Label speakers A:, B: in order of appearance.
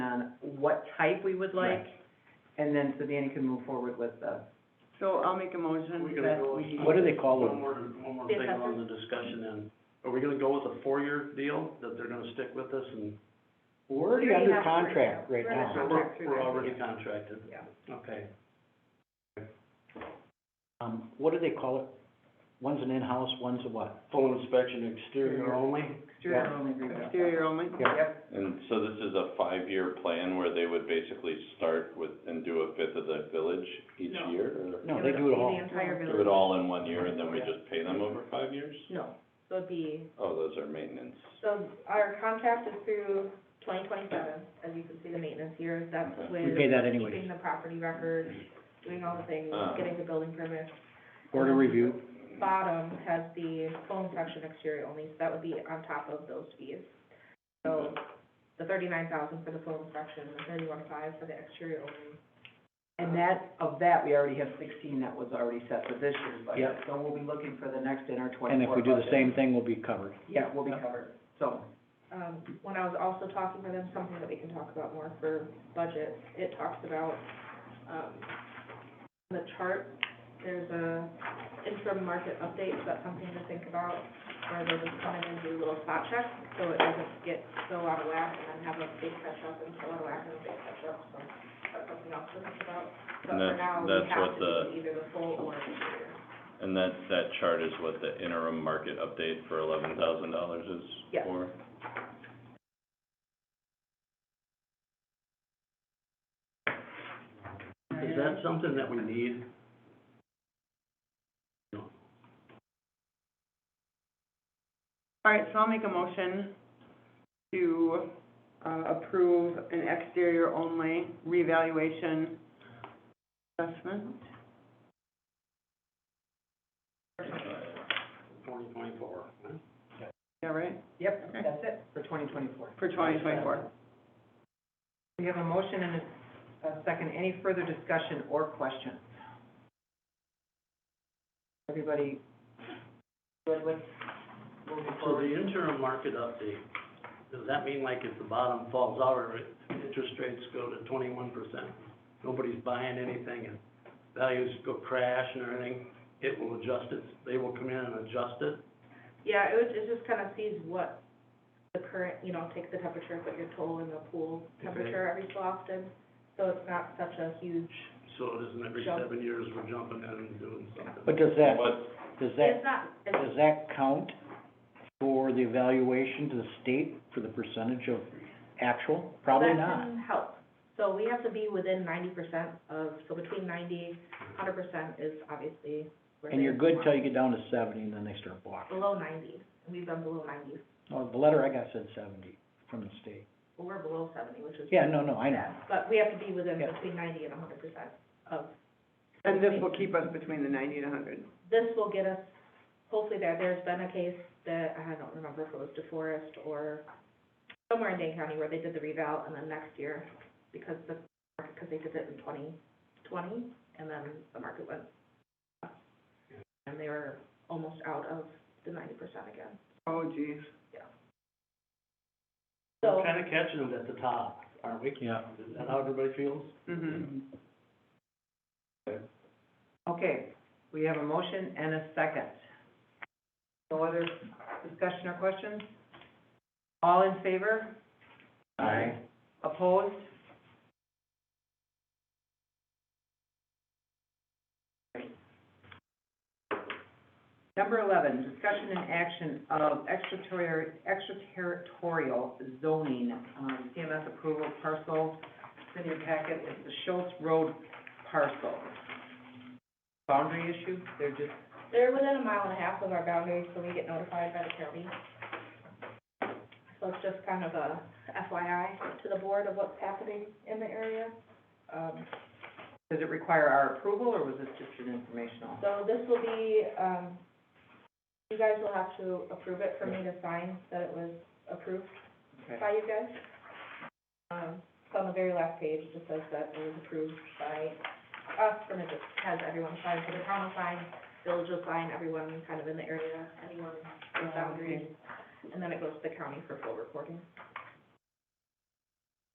A: what type we would like,
B: Right.
A: and then so Danny can move forward with the.
C: So I'll make a motion that we.
B: What do they call
D: One
B: them?
D: more, one more
A: The
D: thing
A: assessor?
D: on the discussion then. Are we gonna go with a four-year deal, that they're gonna stick with us and,
B: We're already
A: We already
B: under
A: have
B: contract
A: right
B: right
A: now.
B: now.
D: so
A: Contract
D: we're,
A: through
D: we're
A: that,
D: already
A: yeah.
D: contracted?
A: Yeah.
D: Okay.
B: Um, what do they call it? One's an in-house, one's a what?
D: Full inspection exterior only?
A: Exterior only rebuild.
C: Exterior only.
A: Yep,
E: And so this is a five-year plan where they would basically start with, and do a fifth of the village each
D: No.
E: year? or
B: No, they do it all.
F: The entire
E: Do it
F: village,
E: all in one year and then we just pay them over five years?
F: no, so it'd be,
E: Oh, those are maintenance.
F: so our contract is through twenty twenty-seven, as you can see, the maintenance years, that's
E: Okay.
B: We
F: with
B: pay that
F: keeping
B: anyways.
F: the property records, doing all the things,
E: Uh.
F: getting the building permit.
B: Order review.
F: Bottom has the full inspection exterior only, so that would be on top of those fees. So the thirty-nine thousand for the full inspection, the thirty-one five for the exterior only.
A: and that, of that, we already have sixteen that was already set for this year's budget,
B: Yep.
A: so we'll be looking for the next in our twenty-four
B: And if we do the
A: budget.
B: same thing, we'll be covered.
A: Yeah, we'll be
B: Yep.
A: covered, so,
F: um, when I was also talking to them, something that we can talk about more for budget, it talks about, um, the chart, there's a interim market update, so that's something to think about, where they'll just come in and do a little spot check, so it doesn't get so out of whack, and then have a big catch up, and so out of whack, and a big catch up, so that's something else to think about. But
E: And
F: for
E: that's-
F: now, we
E: that's
F: have
E: what the-
F: to do either the full or the interior.
E: And that, that chart is what the interim market update for eleven thousand dollars is
F: Yeah.
E: for?
D: Is that something that we need?
C: All right, so I'll make a motion to, uh, approve an exterior only revaluation assessment.
D: Twenty twenty-four, huh?
C: Yeah, right,
A: yep,
C: Okay.
A: that's it for twenty twenty-four.
C: for twenty twenty-four.
A: We have a motion and a, a second. Any further discussion or questions? Everybody good with moving
D: So the
A: forward?
D: interim market update, does that mean like if the bottom falls out or it- interest rates go to twenty-one percent? Nobody's buying anything and values go crash and everything, it will adjust it, they will come in and adjust it?
F: Yeah, it was, it just kind of sees what the current, you know, takes the temperature of what your total in the pool temperature every so often. So it's not such a huge,
D: So it isn't every
F: Jump.
D: seven years we're jumping in and doing something?
B: But does that,
E: What,
B: does that,
F: it's not, it's,
B: does that count for the evaluation to the state for the percentage of actual? Probably
F: that
B: not.
F: can help. So we have to be within ninety percent of, so between ninety, hundred percent is obviously where
B: And
F: they
B: you're good till
F: want.
B: you get down to seventy and then they start blocking.
F: Below ninety, we've been below ninety,
B: Well, the letter I got said seventy from the state.
F: Well, we're below seventy, which is.
B: Yeah, no, no, I know.
F: But we have to be within
B: Yeah.
F: between ninety and hundred percent of
C: And this will keep us between the ninety and hundred.
F: this will get us hopefully there. There's been a case that, I don't remember if it was DeForest or somewhere in Dane County where they did the revow and then next year, because the, because they did it in twenty twenty, and then the market went up. And they were almost out of the ninety percent again.
C: Oh geez.
F: So,
D: We're kinda catching them at the top, aren't we?
B: Yeah.
D: Is that how everybody feels?
C: Mm-hmm.
A: Okay, we have a motion and a second. No other discussion or questions? All in favor?
B: Aye.
A: Opposed? Number eleven, discussion and action of extraterritorial, extraterritorial zoning, um, CMS approval parcel. It's in your packet, it's the Schultz Road parcel. Boundary issue, they're just,
F: they're within a mile and a half of our boundaries, so we get notified by the county. So it's just kind of a FYI to the board of what's happening in the area. Um,
A: does it require our approval, or was this just an informational?
F: So this will be, um, you guys will have to approve it for me to sign that it was approved
A: Okay.
F: by you guys. Um, so on the very last page, it just says that it was approved by us, and it just has everyone sign, so the town will sign, village will sign, everyone kind of in the area, anyone in boundaries. And then it goes to the county for full reporting.